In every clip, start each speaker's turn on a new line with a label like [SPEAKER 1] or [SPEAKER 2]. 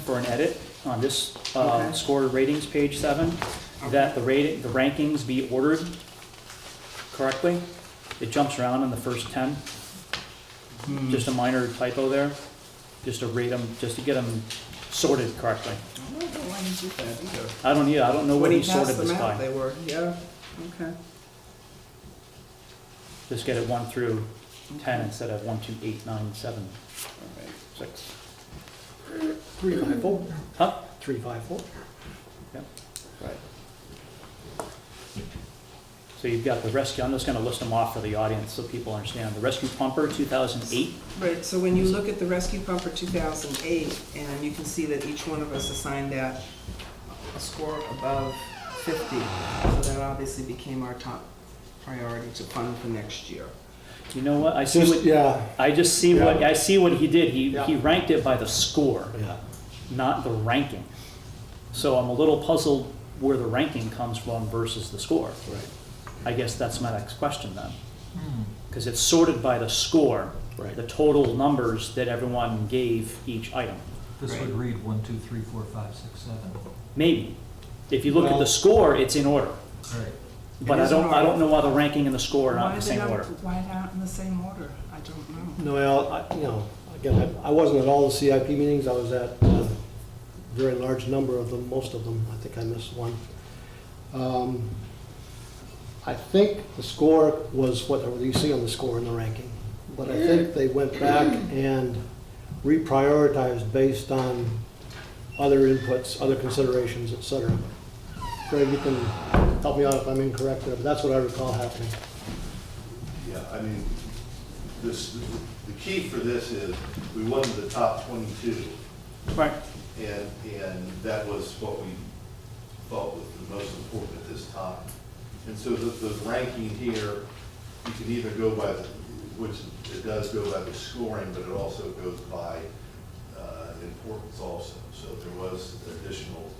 [SPEAKER 1] for an edit on this uh,
[SPEAKER 2] Okay.
[SPEAKER 1] score ratings, page seven, that the rating, the rankings be ordered correctly. It jumps around in the first ten,
[SPEAKER 2] Hmm. Mm.
[SPEAKER 1] just a minor typo there, just to rate them, just to get them sorted correctly.
[SPEAKER 2] I don't know why he did that either.
[SPEAKER 1] I don't, yeah, I don't know
[SPEAKER 2] When
[SPEAKER 1] what
[SPEAKER 2] he
[SPEAKER 1] he sorted
[SPEAKER 2] passed
[SPEAKER 1] this
[SPEAKER 2] them out,
[SPEAKER 1] by.
[SPEAKER 2] they were, yeah, okay.
[SPEAKER 1] Just get it one through ten instead of one, two, eight, nine, seven, six.
[SPEAKER 3] Three five four.
[SPEAKER 1] Huh?
[SPEAKER 3] Three five four.
[SPEAKER 2] Right.
[SPEAKER 1] So you've got the rescue, I'm just gonna list them off for the audience so people understand. The rescue pumper, two thousand eight,
[SPEAKER 2] Right, so when you look at the rescue pump for 2008, and you can see that each one of us assigned that a score above 50, so that obviously became our top priority to fund for next year.
[SPEAKER 1] you know what, I see
[SPEAKER 3] Just,
[SPEAKER 1] what,
[SPEAKER 3] yeah,
[SPEAKER 1] I just see what, I see what he did, he, he
[SPEAKER 3] Yeah.
[SPEAKER 1] ranked it by the score,
[SPEAKER 3] yeah.
[SPEAKER 1] not the ranking. So I'm a little puzzled where the ranking comes from versus the score.
[SPEAKER 3] Right,
[SPEAKER 1] I guess that's my next question then. Because it's sorted by the score,
[SPEAKER 3] Right.
[SPEAKER 1] the total numbers that everyone gave each item.
[SPEAKER 4] This would read one, two, three, four, five, six, seven.
[SPEAKER 1] Maybe. If you look at the
[SPEAKER 3] Well-
[SPEAKER 1] score, it's in order,
[SPEAKER 4] All right.
[SPEAKER 1] but
[SPEAKER 2] It
[SPEAKER 1] I
[SPEAKER 2] is in
[SPEAKER 1] don't, I
[SPEAKER 2] order.
[SPEAKER 1] don't know why the ranking and the score are not in the same order.
[SPEAKER 2] Why they're not in the same order? I don't know.
[SPEAKER 3] No, well, I, you know, again, I, I wasn't at all the CIP meetings, I was at uh, a very large number of them, most of them, I think I missed one. Um, I think the score was what you see on the score in the ranking, but I think they went back and reprioritized based on other inputs, other considerations, et cetera. Greg, you can help me out if I'm incorrect there, but that's what I recall happening.
[SPEAKER 5] Yeah, I mean, this, the key for this is, we wanted the top twenty-two,
[SPEAKER 1] Right.
[SPEAKER 5] and, and that was what we thought was the most important at this time. And so the, the ranking here, you can either go by, the- which it does go by the scoring, but it also goes by, uh, importance also. So there was additional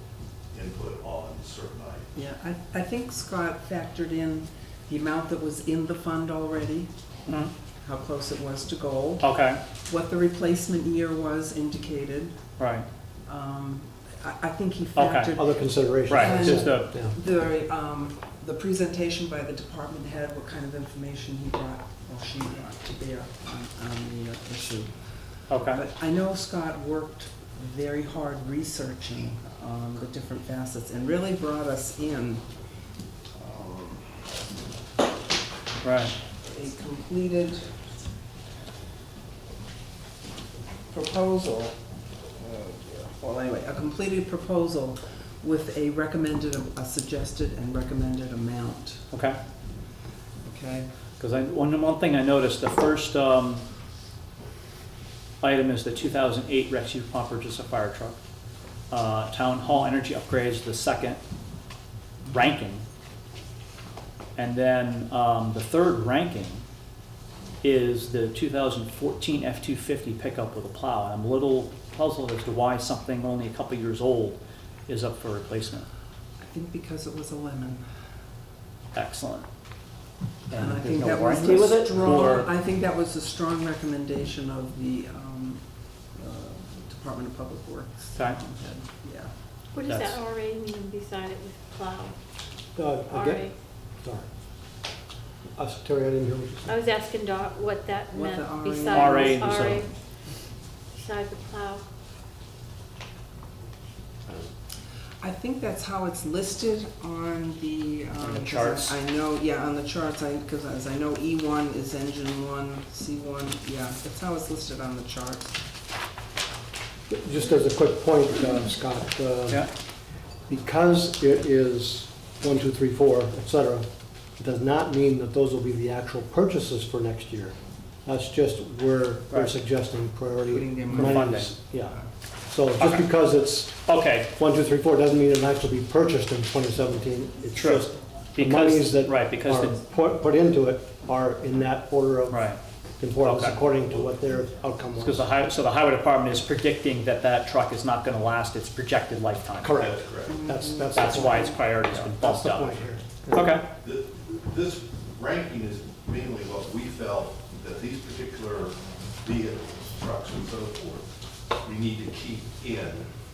[SPEAKER 5] input on certain items.
[SPEAKER 2] Yeah, I, I think Scott factored in the amount that was in the fund already,
[SPEAKER 1] Mhm.
[SPEAKER 2] how close it was to goal,
[SPEAKER 1] Okay,
[SPEAKER 2] what the replacement year was indicated.
[SPEAKER 1] right,
[SPEAKER 2] Um, I, I think he
[SPEAKER 1] Okay.
[SPEAKER 2] factored
[SPEAKER 3] Other considerations.
[SPEAKER 1] right,
[SPEAKER 2] Um,
[SPEAKER 1] just uh, a,
[SPEAKER 3] Yeah.
[SPEAKER 2] The, um, the presentation by the department head, what kind of information he brought or she brought to bear on, on the uh, issue.
[SPEAKER 1] okay,
[SPEAKER 2] But I know Scott worked very hard researching, um, the different facets and really brought us in um,
[SPEAKER 1] right,
[SPEAKER 2] a completed proposal. Oh, Well, anyway, a completed proposal with a recommended, a suggested and recommended amount,
[SPEAKER 1] okay.
[SPEAKER 2] okay?
[SPEAKER 1] Because I, one, one thing I noticed, the first, um, item is the two thousand eight rescue pump purchase a fire truck. Uh, town hall energy upgrades, the second ranking. And then, um, the third ranking is the two thousand fourteen F two fifty pickup with a plow. And I'm a little puzzled as to why something only a couple years old is up for replacement.
[SPEAKER 2] I think because it was a lemon.
[SPEAKER 1] Excellent.
[SPEAKER 2] And I
[SPEAKER 1] there's
[SPEAKER 2] think
[SPEAKER 1] no
[SPEAKER 2] that was
[SPEAKER 1] warranty with
[SPEAKER 2] the
[SPEAKER 1] it,
[SPEAKER 2] strong,
[SPEAKER 1] or-
[SPEAKER 2] I think that was the strong recommendation of the um, uh, Department of Public Works.
[SPEAKER 1] Okay.
[SPEAKER 2] Yeah.
[SPEAKER 6] What does that
[SPEAKER 1] That's-
[SPEAKER 6] RA mean beside it with plow?
[SPEAKER 3] Uh,
[SPEAKER 6] RA.
[SPEAKER 3] Again, sorry. Uh, Terry, I didn't hear what you
[SPEAKER 6] I
[SPEAKER 3] said.
[SPEAKER 6] was asking Dot what that
[SPEAKER 2] What
[SPEAKER 6] meant
[SPEAKER 2] the RA
[SPEAKER 6] beside
[SPEAKER 1] RA
[SPEAKER 6] it
[SPEAKER 1] is, uh,
[SPEAKER 6] RA. Beside the plow.
[SPEAKER 2] I think that's how it's listed on the. um,
[SPEAKER 1] On the
[SPEAKER 2] 'cause I-
[SPEAKER 1] charts.
[SPEAKER 2] I know, yeah, on the charts, I, because as I know, E1 is engine one, C1, yeah, that's how it's listed on the charts.
[SPEAKER 3] Just as a quick point, uh, Scott, uh,
[SPEAKER 1] Yeah,
[SPEAKER 3] because it is one, two, three, four, et cetera, it does not mean that those will be the actual purchases for next year. That's just where we're
[SPEAKER 1] Right.
[SPEAKER 3] suggesting priority.
[SPEAKER 2] Putting them
[SPEAKER 1] in.
[SPEAKER 3] monies. Yeah. So just
[SPEAKER 1] Okay.
[SPEAKER 3] because it's
[SPEAKER 1] okay,
[SPEAKER 3] one, two, three, four, doesn't mean it'll actually be purchased in 2017. It's
[SPEAKER 1] True.
[SPEAKER 3] just the monies
[SPEAKER 1] because,
[SPEAKER 3] that
[SPEAKER 1] right, because,
[SPEAKER 3] are
[SPEAKER 1] the-
[SPEAKER 3] put put into it are in that order of
[SPEAKER 1] right.
[SPEAKER 3] importance
[SPEAKER 1] Okay.
[SPEAKER 3] according to what their outcome
[SPEAKER 1] Because
[SPEAKER 3] was.
[SPEAKER 1] the highway, so the highway department is predicting that that truck is not gonna last its projected lifetime.
[SPEAKER 3] Correct.
[SPEAKER 5] That's correct.
[SPEAKER 3] That's, that's. the
[SPEAKER 1] That's
[SPEAKER 3] point.
[SPEAKER 1] why its priority's been bumped
[SPEAKER 3] That's the
[SPEAKER 1] up.
[SPEAKER 3] point here.
[SPEAKER 1] Okay,
[SPEAKER 5] Th- This ranking is mainly what we felt that these particular vehicles, trucks and so forth, we need to keep in